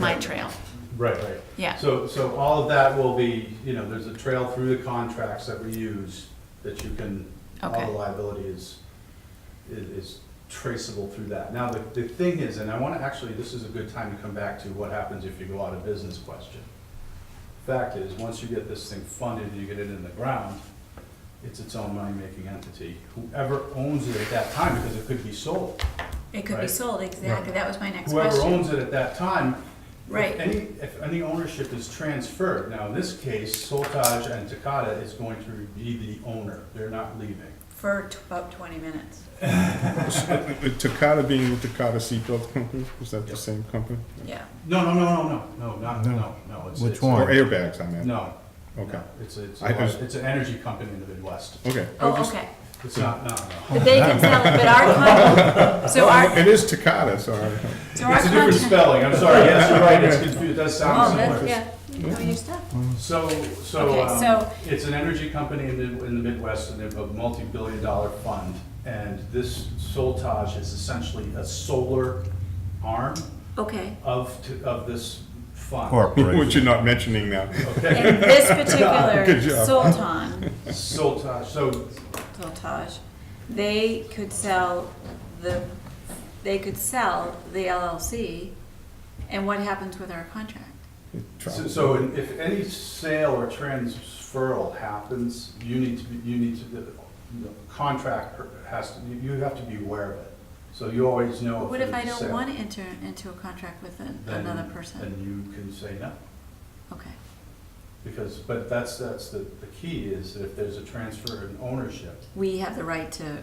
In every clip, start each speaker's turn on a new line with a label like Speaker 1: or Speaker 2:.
Speaker 1: my trail.
Speaker 2: Right, right.
Speaker 1: Yeah.
Speaker 2: So, so all of that will be, you know, there's a trail through the contracts that we use that you can, all
Speaker 1: Okay.
Speaker 2: the liability is, i- is traceable through that. Now, the, the thing is, and I want to actually, this is a good time to come back to what happens if you go out of business question. Fact is, once you get this thing funded and you get it in the ground, it's its own money-making entity. Whoever owns it at that time, because it could be sold.
Speaker 1: It could be
Speaker 2: Right.
Speaker 1: sold, exactly. That was my next
Speaker 2: Whoever
Speaker 1: question.
Speaker 2: owns it at that time If
Speaker 1: Right.
Speaker 2: Any, if any ownership is transferred, now in this case, Soltage and Takata is going to be the owner, they're not leaving.
Speaker 1: For t- about twenty minutes.
Speaker 3: Takata being the Takata Seatbelt Company, was that the
Speaker 2: Yep.
Speaker 3: same company?
Speaker 1: Yeah.
Speaker 2: No, no, no, no, no, no, not,
Speaker 4: No.
Speaker 2: no, no. it's-
Speaker 4: Which
Speaker 2: it's-
Speaker 3: Or
Speaker 4: one?
Speaker 3: airbags, I meant?
Speaker 2: No.
Speaker 3: Okay.
Speaker 2: no, It's, it's,
Speaker 3: I was-
Speaker 2: it's an energy company in the Midwest,
Speaker 3: Okay. I was
Speaker 1: Oh,
Speaker 3: just-
Speaker 1: okay.
Speaker 2: it's not, no, no.
Speaker 1: But they can sell it, but our con, so our,
Speaker 3: It is Takata, so I-
Speaker 1: so our
Speaker 2: It's a different
Speaker 1: content.
Speaker 2: spelling, I'm sorry, yes, you're right, it's confused, it does
Speaker 1: Oh,
Speaker 2: sound
Speaker 1: that's,
Speaker 2: similar.
Speaker 1: yeah, you know your stuff.
Speaker 2: So, so,
Speaker 1: Okay,
Speaker 2: um,
Speaker 1: so-
Speaker 2: it's an energy company in the, in the Midwest, and they have a multi-billion dollar fund. And this Soltage is essentially a solar arm
Speaker 1: Okay.
Speaker 2: of, t- of this fund.
Speaker 3: which you're
Speaker 4: Corporation.
Speaker 3: not mentioning now.
Speaker 2: Okay,
Speaker 1: And this particular
Speaker 3: Good job.
Speaker 1: Sultan,
Speaker 2: Soltage, so,
Speaker 1: Sultaj, they could sell the, they could sell the LLC, and what happens with our contract?
Speaker 2: so- so in- if any sale or transferal happens, you need to, be you need to, the the contractor has to, you you have to be aware of it. So you always know.
Speaker 1: What if I
Speaker 2: there's a
Speaker 1: don't
Speaker 2: sale.
Speaker 1: want to enter into a contract with an-
Speaker 2: Then-
Speaker 1: another person?
Speaker 2: Then you can say no.
Speaker 1: Okay.
Speaker 2: Because, but that's, that's the, the key is that if there's a transfer in ownership,
Speaker 1: We have the right to,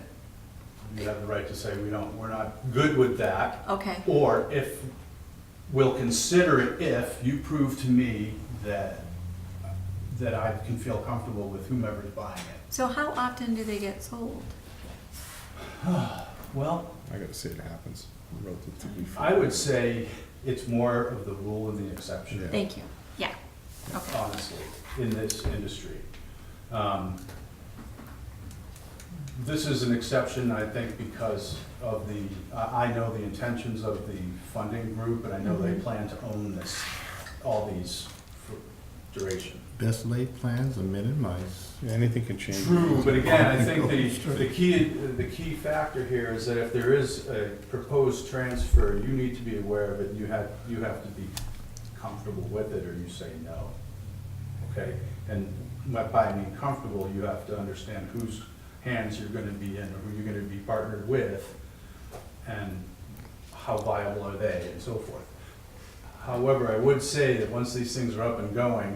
Speaker 2: you have the right to say, we don't, we're not good with that.
Speaker 1: okay,
Speaker 2: Or if, we'll consider it if you prove to me that, that I can feel comfortable with whomever's buying it.
Speaker 1: so how often do they get sold?
Speaker 2: Well,
Speaker 3: I gotta say it happens relatively.
Speaker 2: I would say it's more of the rule than the exception,
Speaker 1: Thank you, yeah, okay,
Speaker 2: honestly, in this industry. Um, This is an exception, I think, because of the, I I know the intentions of the funding group, and I know they plan to own this, all these for duration.
Speaker 4: Best laid plans are men and mice.
Speaker 3: Yeah, Anything can change.
Speaker 2: True, but again, I think the, the key, the key factor here is that if there is a proposed transfer, you need to be aware of it, you have, you have to be comfortable with it, or you say no. Okay, and by- by being comfortable, you have to understand whose hands you're gonna be in, or who you're gonna be partnered with, and how viable are they, and so forth. However, I would say that once these things are up and going,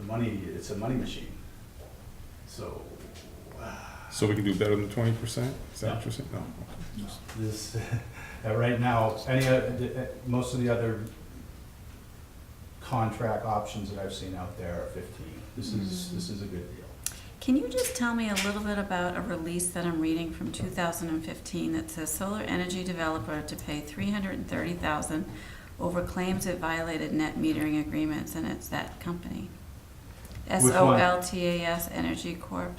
Speaker 2: the money, it's a money machine. So,
Speaker 3: So we can do better than twenty percent? Is that what you're saying? No.
Speaker 2: this, uh, right now, any, oth- uh, most of the other contract options that I've seen out there are fifteen. This is, this is a good deal.
Speaker 1: Can you just tell me a little bit about a release that I'm reading from two thousand and fifteen that says solar energy developer to pay three hundred and thirty thousand over claims it violated net metering agreements, and it's that company? S
Speaker 2: Which
Speaker 1: O
Speaker 2: one?
Speaker 1: L T A S Energy Corp.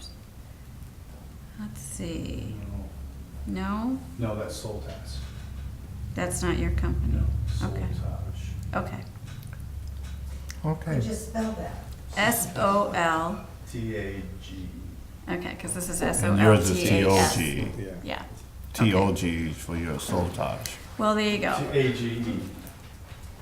Speaker 1: Let's see, no,
Speaker 2: No, that's Soltas.
Speaker 1: that's not your company,
Speaker 2: No,
Speaker 1: Okay.
Speaker 2: Soltage.
Speaker 1: okay.
Speaker 4: Okay.
Speaker 5: Could you spell that?
Speaker 1: S O L,
Speaker 2: T A G. E.
Speaker 1: okay, because this is S O
Speaker 4: And
Speaker 1: L
Speaker 4: yours is
Speaker 1: T A S.
Speaker 4: T-O-G.
Speaker 3: Yeah.
Speaker 1: Yeah,
Speaker 4: T-O-G for your soul touch.
Speaker 1: well, there you go.
Speaker 2: A G E.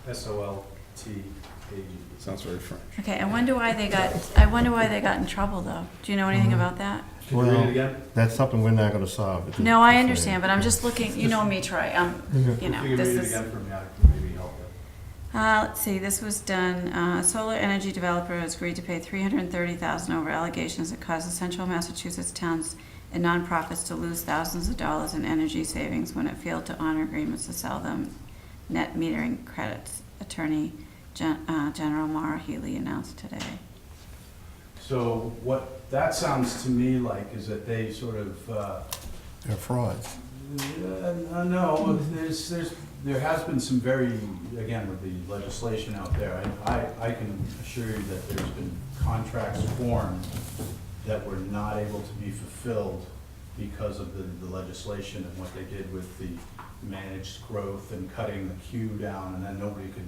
Speaker 2: S O L T A G E.
Speaker 3: Sounds very French.
Speaker 1: Okay, I wonder why they got, I wonder why they got in trouble, though. Do you know anything
Speaker 4: Mm-hmm.
Speaker 1: about that?
Speaker 2: Can you read it again?
Speaker 4: That's something we're not gonna solve. It's
Speaker 1: No, I
Speaker 4: just-
Speaker 1: understand, but I'm just looking, you know me, Troy, um, you
Speaker 2: If you
Speaker 1: know,
Speaker 2: can
Speaker 1: this
Speaker 2: read it
Speaker 1: is.
Speaker 2: again for me, I can maybe help you.
Speaker 1: Uh, let's see, this was done, uh, solar energy developer has agreed to pay three hundred and thirty thousand over allegations that causes central Massachusetts towns and nonprofits to lose thousands of dollars in energy savings when it failed to honor agreements to sell them net metering credits, attorney Gen- uh, General Mara Healy announced today.
Speaker 2: So what that sounds to me like is that they sort of, uh,
Speaker 4: They're frauds.
Speaker 2: Uh, No, there's, there's, there has been some very, again, with the legislation out there, I, I I can assure you that there's been contracts formed that were not able to be fulfilled because of the, the legislation and what they did with the managed growth and cutting the queue down, and then nobody could